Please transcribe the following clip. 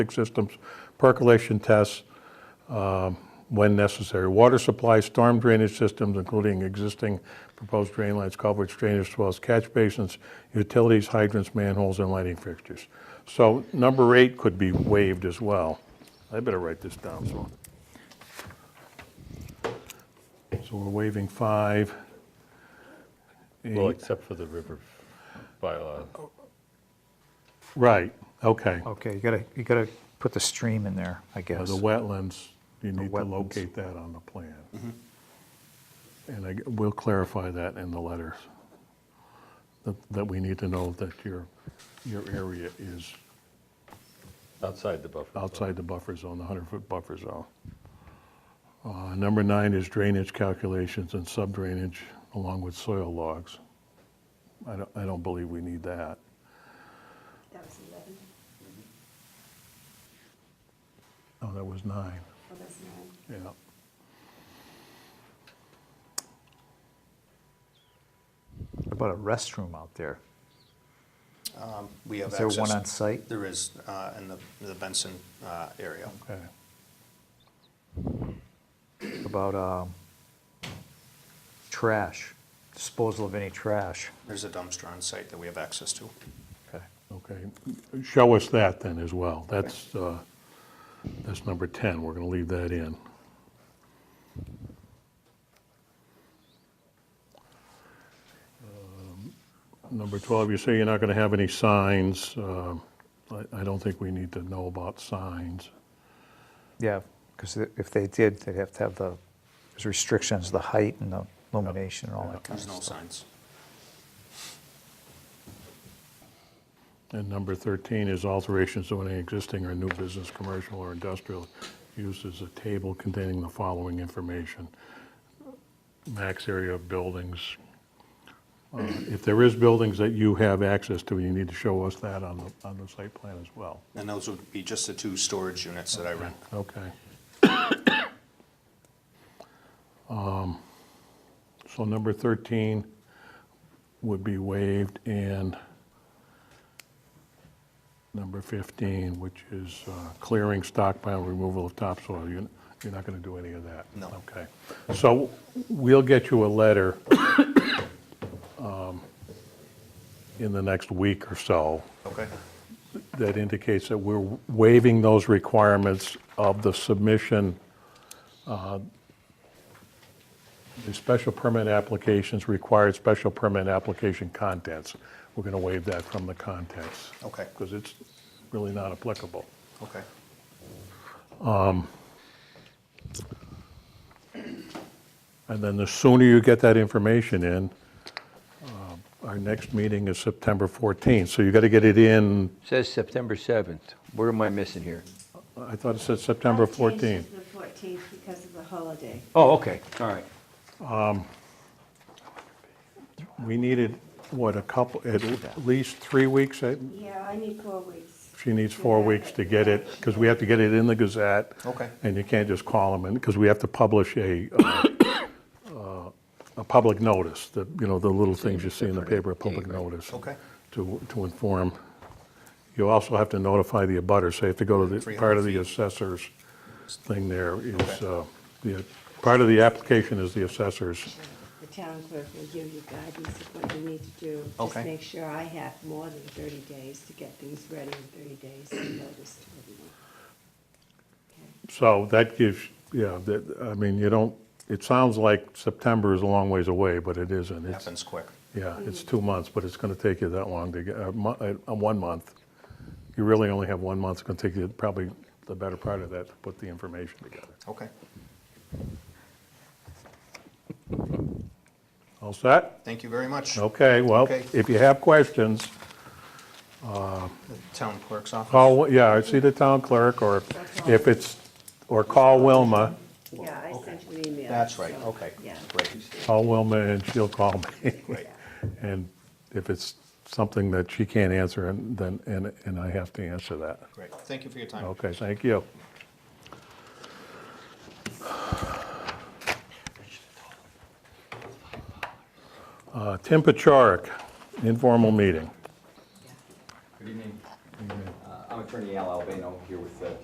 systems, percolation tests um, when necessary, water supply, storm drainage systems, including existing proposed drain lines, culverts, drainage wells, catch basins, utilities, hydrants, manholes, and lighting fixtures. So number eight could be waived as well. I better write this down, so. So we're waiving five. Well, except for the river bylaw. Right, okay. Okay, you gotta, you gotta put the stream in there, I Uh, guess. The wetlands, you need to wetlands. locate that on the plan. And I, we'll clarify that in the letters, that, that we need to know that your, your area is Outside the buffer. zone. outside the buffer zone, the 100-foot buffer zone. Uh, Number nine is drainage calculations and sub-drainage along with soil logs. I don't, I don't believe we need that. That was 11. Oh, that was nine, Oh, that's nine. yeah. What About a restroom out there. We have Is there access. one on site? There is, uh, in the the Benson uh, area. Okay. What About, um, trash, disposal of any trash. There's a dumpster on site that we have access to. Okay. Okay, show us that then as well. That's, uh, that's number 10, we're going to leave that in. Um, Number 12, you say you're not going to have any signs. Um, I I don't think we need to know about signs. Yeah, because if they did, they'd have to have the, there's restrictions, the height and the illumination and all that kind of There's no stuff. signs. And number 13 is alterations to any existing or new business, commercial, or industrial uses, a table containing the following information. Max area of buildings. Uh, If there is buildings that you have access to, you need to show us that on the, on the site plan as well. And those would be just the two storage units that I rent. Okay. Um, So number 13 would be waived, and number 15, which is uh, clearing, stockpile, removal of topsoil, You- you're not going to do any of that? No. Okay. So we'll get you a letter um, in the next week or so Okay. that indicates that we're waiving those requirements of the submission, uh, the special permit applications, required special permit application contents. We're going to waive that from the contents. Okay. Because it's really not applicable. Okay. And then the sooner you get that information in, uh, our next meeting is September 14th. So you got to get it in, Says September 7th. Where am I missing here? I thought it said September I've changed 14th. it to the 14th because of the holiday. Oh, okay, all right. We needed, what, a couple, at least three weeks, eh? Yeah, I need four weeks. She needs four weeks to get it, because we have to get it in the Gazette. Okay. And you can't just call them, because we have to publish a, uh, uh, a public notice, the, you know, the little things you see in the paper, a public notice. Okay. To, to inform. You also have to notify the abutters, so you have to go to the, 300 part of the feet. assessor's thing there is, Okay. uh, the, part of the application is the assessor's. The town clerk will give you guidance of what you need to do. Okay. Just make sure I have more than 30 days to get things ready in 30 days and notice to everyone. Okay. So that gives, yeah, that, I mean, you don't, it sounds like September is a long ways away, but it isn't. It's- Happens quick. Yeah, it's two months, but it's going to take you that long to get, uh, mo- uh, uh, one month. You really only have one month. It's going to take you probably the better part of that to put the information together. Okay. All set? Thank you very much. Okay, well, Okay. if you have questions, The Town clerk's office. call, yeah, see the town clerk, or if it's, or call Wilma. Yeah, I sent you an email. That's right, so, okay. Yeah. Great, Call Wilma and she'll call me. great. And if it's something that she can't answer, and then, and, and I have to answer that. Great. Thank you for your time. Okay, thank you. Uh, Tim Pacharik, informal meeting. Yeah. Good evening. Uh, I'm Attorney Al Albano here with